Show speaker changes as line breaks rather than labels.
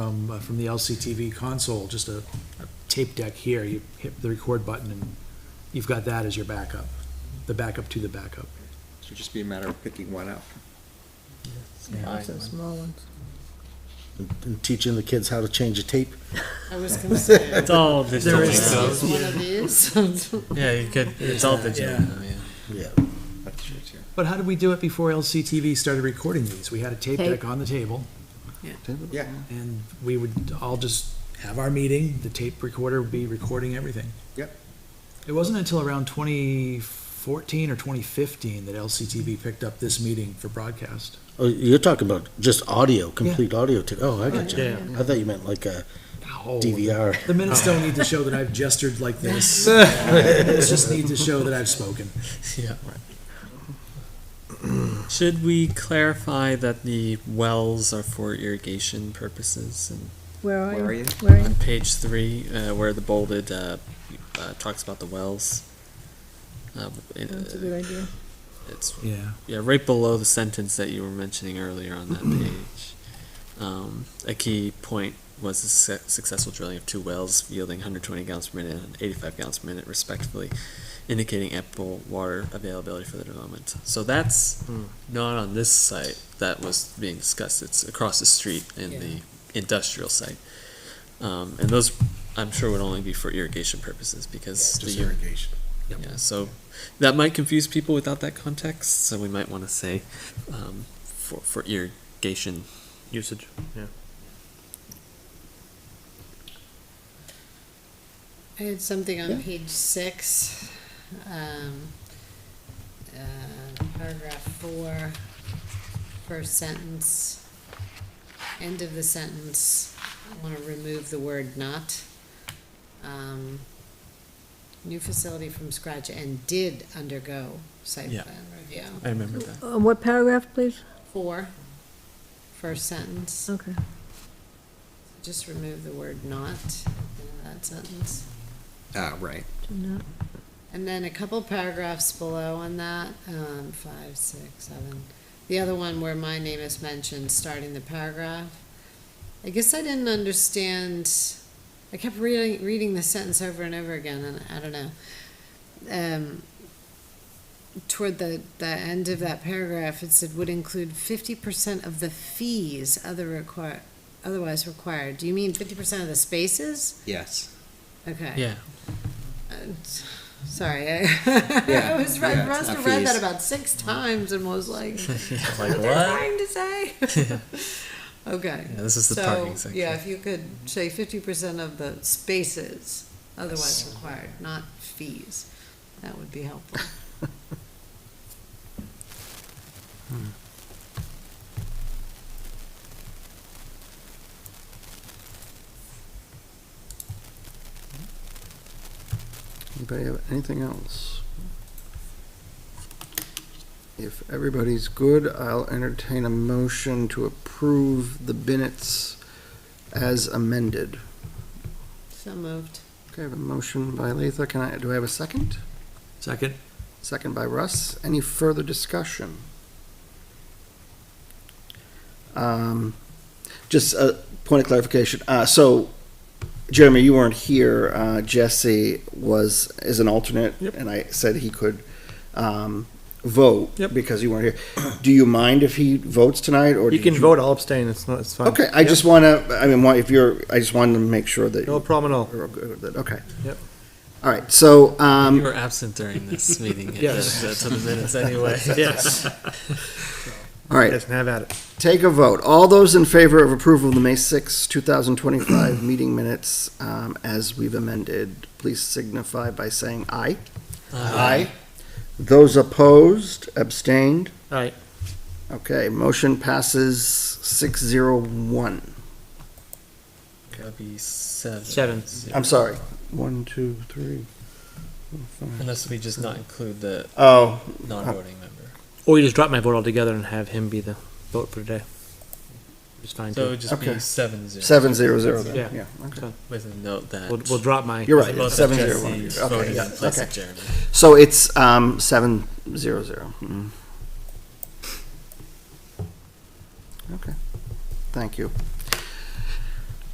from, uh, from the LCTV console, just a a tape deck here, you hit the record button and you've got that as your backup, the backup to the backup.
So just be a matter of picking one up.
Lots of small ones.
and teaching the kids how to change a tape.
I was gonna say.
It's all digital.
There is-
now.
It's one of these.
Yeah, you could, it's all digital.
Yeah.
now, yeah.
Yeah.
That's true too.
But how did we do it before LCTV started recording these? We had a tape
Tape.
deck on the table
Yeah,
and we would all just have our meeting, the tape recorder would be recording everything.
Yep.
It wasn't until around twenty fourteen or twenty fifteen that LCTV picked up this meeting for broadcast.
Oh, you're talking about just audio, complete audio tape. Oh, I got you.
Yeah.
I thought you meant like a
Ow.
DVR.
The minutes don't need to show that I've gestured like this. It just need to show that I've spoken.
Yeah. Should we clarify that the wells are for irrigation purposes? And
Where
where
are
are
you?
you?
Where are you?
on page three, uh, where the bolded uh, uh, talks about the wells, uh, it,
That's a good idea.
it's
Yeah.
yeah right below the sentence that you were mentioning earlier on that page. Um, a key point was the suc- successful drilling of two wells yielding 120 gallons per minute and 85 gallons per minute, respectively, indicating ample water availability for the development. So that's not on this site that was being discussed. It's across the street in the industrial site, um, and those I'm sure would only be for irrigation purposes because the
irrigation.
yeah, so that might confuse people without that context, so we might want to say um, for, for irrigation.
Usage, yeah.
I had something
Yeah.
on page six, um, uh, paragraph four, first sentence, end of the sentence, I wanna remove the word not. Um, new facility from scratch and did undergo site
Yeah.
plan review.
I remember that.
Uh, What paragraph, please?
Four, first sentence,
Okay.
just remove the word not in that sentence.
ah, right.
Do not-
And then a couple paragraphs below on that, um, five, six, seven. The other one where my name is mentioned, starting the paragraph. I guess I didn't understand, I kept reading, reading the sentence over and over again, and I don't know. Um, toward the, the end of that paragraph, it said would include fifty percent of the fees other require, otherwise required. Do you mean fifty percent of the spaces?
Yes.
Okay.
Yeah,
Uh, s- Sorry, I,
Yeah,
I was read,
yeah, it's
must
not
have read that
fees.
about six times and was like,
like
what are
what?
trying to say? okay.
Yeah, this is the
so,
parking section.
Yeah, if you could say 50% of the spaces otherwise required, not fees, that would be helpful.
Anybody have anything else? If everybody's good, I'll entertain a motion to approve the minutes as amended.
So moved.
Okay, I have a motion by Letha. Can I, do I have a second?
Second?
Second by Russ. Any further discussion?
Um, just a point of clarification. Uh, so, Jeremy, you weren't here. Uh, Jesse was is an alternate,
Yep.
and I said he could um, vote
Yep.
because you weren't here. Do you mind if he votes tonight, or
You
did
can vote, I'll abstain, it's not, it's fine.
Okay, I just want to. I mean, why- if you're, I just wanted to make sure that
No problem at all.
you're good with it. Okay.
Yep.
All right. So,
you
um,
were absent during this meeting.
Yes.
uh, to the minutes anyway.
Yes.
all right.
Yes, and have at it.
Take a vote. All those in favor of approval of the May sixth, two 2025 meeting minutes um, as we've amended, please signify by saying aye. Those opposed, abstained?
Aye.
Okay, motion passes 601.
That'd be seven.
Seven.
Yeah.
I'm sorry. One, two, three. four, five.
Unless we just not include the
Oh,
non-voting member.
Or you just drop my vote altogether and have him be the vote for today. It's fine
So it
too.
would just
Okay.
be seven zero.
seven zero zero
Yeah.
then, yeah. okay.
With a note that.
We'll, we'll drop my.
You're right,
Both
seven
of
zero one.
Jesse's
Okay,
voting
yeah,
in place
okay.
of Jeremy.
So it's um, seven zero zero. Mm. Okay. Thank you.